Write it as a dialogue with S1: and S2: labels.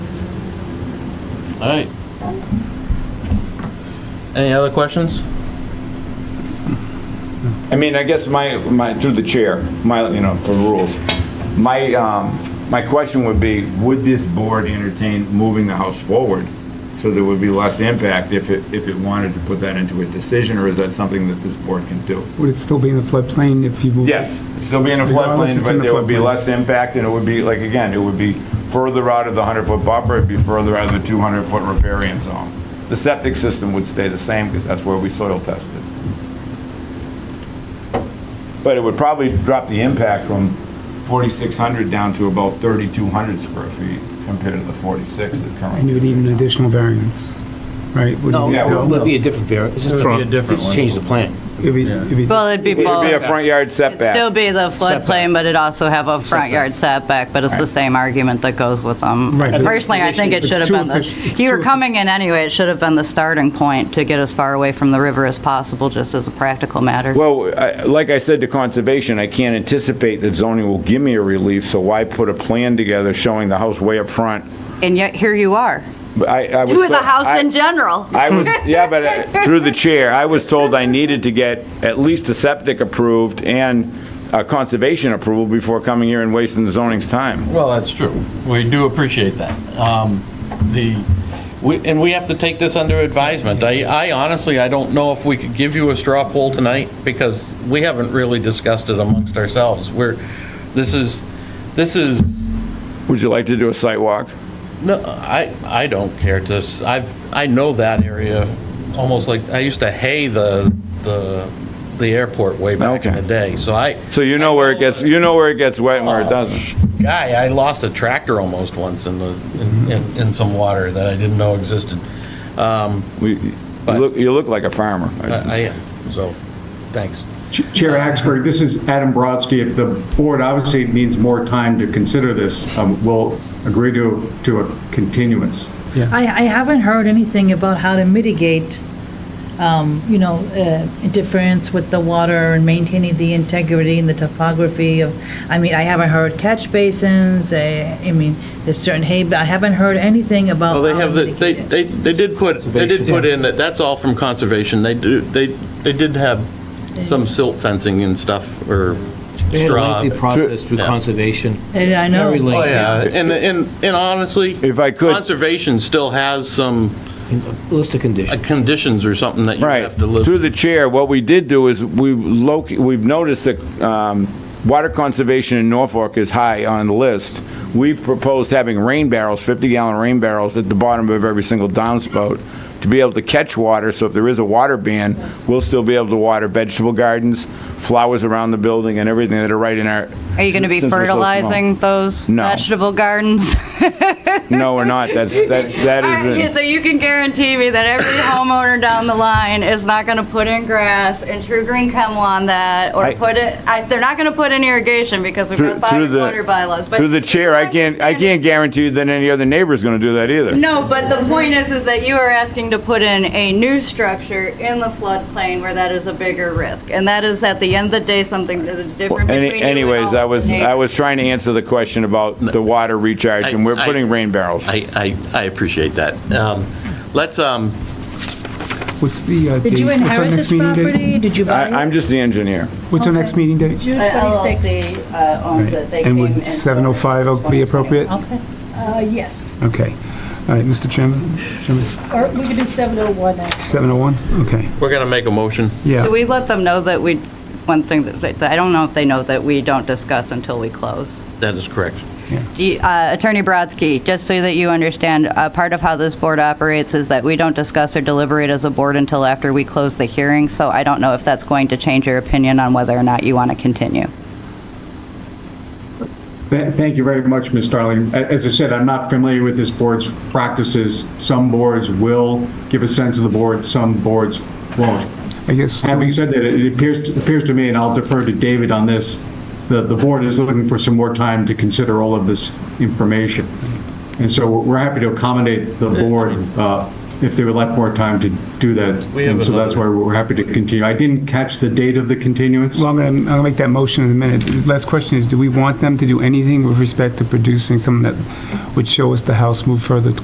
S1: All right. Any other questions?
S2: I mean, I guess my, my, through the chair, my, you know, for the rules, my, um, my question would be, would this board entertain moving the house forward? So there would be less impact if it, if it wanted to put that into a decision, or is that something that this board can do?
S3: Would it still be in the floodplain if you move?
S2: Yes, still be in a
S3: Regardless,
S2: floodplain,
S3: it's in
S2: but
S3: the
S2: there would be
S3: floodplain.
S2: less impact, and it would be, like, again, it would be further out of the 100-foot buffer, it'd be further out of the 200-foot riparian zone. The septic system would stay the same, because that's where we soil tested. But it would probably drop the impact from 4,600 down to about 3,200 square feet compared to the 46 that
S3: And you
S2: currently.
S3: would need an additional variance, right? Would
S4: No,
S3: you-
S2: Yeah, well-
S4: it would be a different variance. This is
S1: It'd be a
S4: from-
S1: different
S4: this
S1: one.
S4: changed the plan.
S3: It'd be- it'd be-
S5: Well, it'd be
S2: It'd be a
S5: both.
S2: front yard
S5: It'd still
S2: setback.
S5: be the
S4: Setback.
S5: floodplain, but it'd also have a front yard setback, but it's the same argument that goes with them.
S3: Right, but it's-
S5: Personally, I think it
S3: It's
S5: should have
S3: too
S5: been the,
S3: efficient. It's
S5: you were
S3: too
S5: coming in anyway, it should have been the starting point to get as far away from the river as possible, just as a practical matter.
S2: Well, I- like I said to conservation, I can't anticipate that zoning will give me a relief, so why put a plan together showing the house way up front?
S5: And yet, here you are,
S2: But I, I was.
S5: with the
S2: told-
S5: house
S2: I-
S5: in general.
S2: I was, yeah, but uh, through the chair, I was told I needed to get at least a septic approved and a conservation approval before coming here and wasting the zoning's time.
S1: Well, that's true. We do appreciate that. Um, The, we and we have to take this under advisement. I I honestly, I don't know if we could give you a straw poll tonight because we haven't really discussed it amongst ourselves. We're, this is, this is,
S2: Would you like to do a site walk?
S1: no, I, I don't care to, s- I've, I know that area almost like, I used to hay the, the the airport way back in
S2: Okay.
S1: the day, so I.
S2: So you know where it gets, you know where it gets wet and where it doesn't.
S1: Guy, I lost a tractor almost once in the, in- in, in some water that I didn't know existed. Um,
S2: We- You look, you look like a farmer.
S1: I, I am, so, thanks.
S6: Ch- Chair Axberg, this is Adam Brodsky. If the board obviously needs more time to consider this, um, we'll agree to, to a continuance.
S7: I, I haven't heard anything about how to mitigate, um, you know, uh, interference with the water and maintaining the integrity and the topography of, I mean, I haven't heard catch basins, eh, I mean, there's certain hay, but I haven't heard anything about.
S1: Well, Oh, they
S7: how
S1: have,
S7: to
S8: Um,
S1: the they,
S7: mitigate it.
S1: they, they did put, they did put in, that that's all from conservation, they do, they, they did have some silt fencing and stuff, or
S4: They had a
S1: straw.
S4: lengthy process through
S1: Yeah.
S4: conservation.
S7: Eh, I know.
S4: Very
S1: Oh,
S4: lengthy.
S1: yeah, and, and, and honestly.
S2: If I could-
S1: Conservation still has some
S4: List
S1: uh,
S4: of conditions.
S1: conditions or something that you
S2: Right.
S1: have to live.
S2: Through the chair, what we did do is we loc, we've noticed that um, water conservation in Norfolk is high on the list. We've proposed having rain barrels, 50-gallon rain barrels at the bottom of every single downspout to be able to catch water, so if there is a water ban, we'll still be able to water vegetable gardens, flowers around the building and everything that are right in our.
S5: Are you going to be
S2: since we're so small.
S5: fertilizing those
S2: No.
S5: vegetable gardens?
S2: No, we're not. That's, that, that
S5: Alright, yeah,
S2: is,
S5: So you can guarantee me that every homeowner down the line is not going to put in grass and true green chemo on that, or
S2: I-
S5: put it, I- they're not going to put in irrigation because we've
S2: through
S5: got
S2: through
S5: body
S2: the.
S5: water bylaws. but
S2: Through the chair, I
S5: you
S2: can't, I
S5: understand-
S2: can't guarantee you that any other neighbor's gonna do that either.
S5: No, but the point is, is that you are asking to put in a new structure in the floodplain where that is a bigger risk. And that is, at the end of the day, something that is different between you
S2: Any-
S5: and
S2: Anyways,
S5: all
S2: I
S5: of the
S2: was, I
S5: neighbors.
S2: was trying to answer the question about the water recharge, and we're putting rain barrels.
S1: I, I, I appreciate that. Um, Let's, um,
S3: What's the, uh,
S7: Did
S3: date?
S7: you
S3: What's our
S7: inherit
S3: next
S7: this
S3: meeting date?
S7: property? Did you buy
S2: I-
S7: it?
S2: I'm just the engineer.
S3: What's our next meeting date?
S8: June
S5: Uh,
S8: 26th.
S5: LLC uh, owns it. They
S3: And
S5: came in
S3: would 7:05 be
S5: 2021.
S3: appropriate?
S7: Okay.
S8: Uh, yes,
S3: Okay. All right, Mr. Chairman, Chairman,
S8: or we could do 701 next.
S3: 7:01? Okay,
S1: we're going to make a motion.
S3: yeah.
S5: Do we let them know that we, one thing that, they- I don't know if they know that we don't discuss until we close.
S1: That is correct.
S5: Do you- uh, Attorney Brodsky, just so that you understand, uh, part of how this board operates is that we don't discuss or deliberate as a board until after we close the hearing, so I don't know if that's going to change your opinion on whether or not you want to continue.
S6: Th- Thank you very much, Ms. Darling. A- As I said, I'm not familiar with this board's practices. Some boards will give a sense of the board, some boards won't.
S3: I guess, do
S6: Having
S3: we-
S6: said that, it appears, it appears to me, and I'll defer to David on this, that the board is looking for some more time to consider all of this information. And so we're happy to accommodate the board uh, if they would like more time to do that.
S1: We have
S6: And so that's why
S1: another-
S6: we're happy to continue. I didn't catch the date of the continuance.
S3: well, I'm going to, I'm going to make that motion in a minute. The Last question is, do we want them to do anything with respect to producing something that would show us the house move further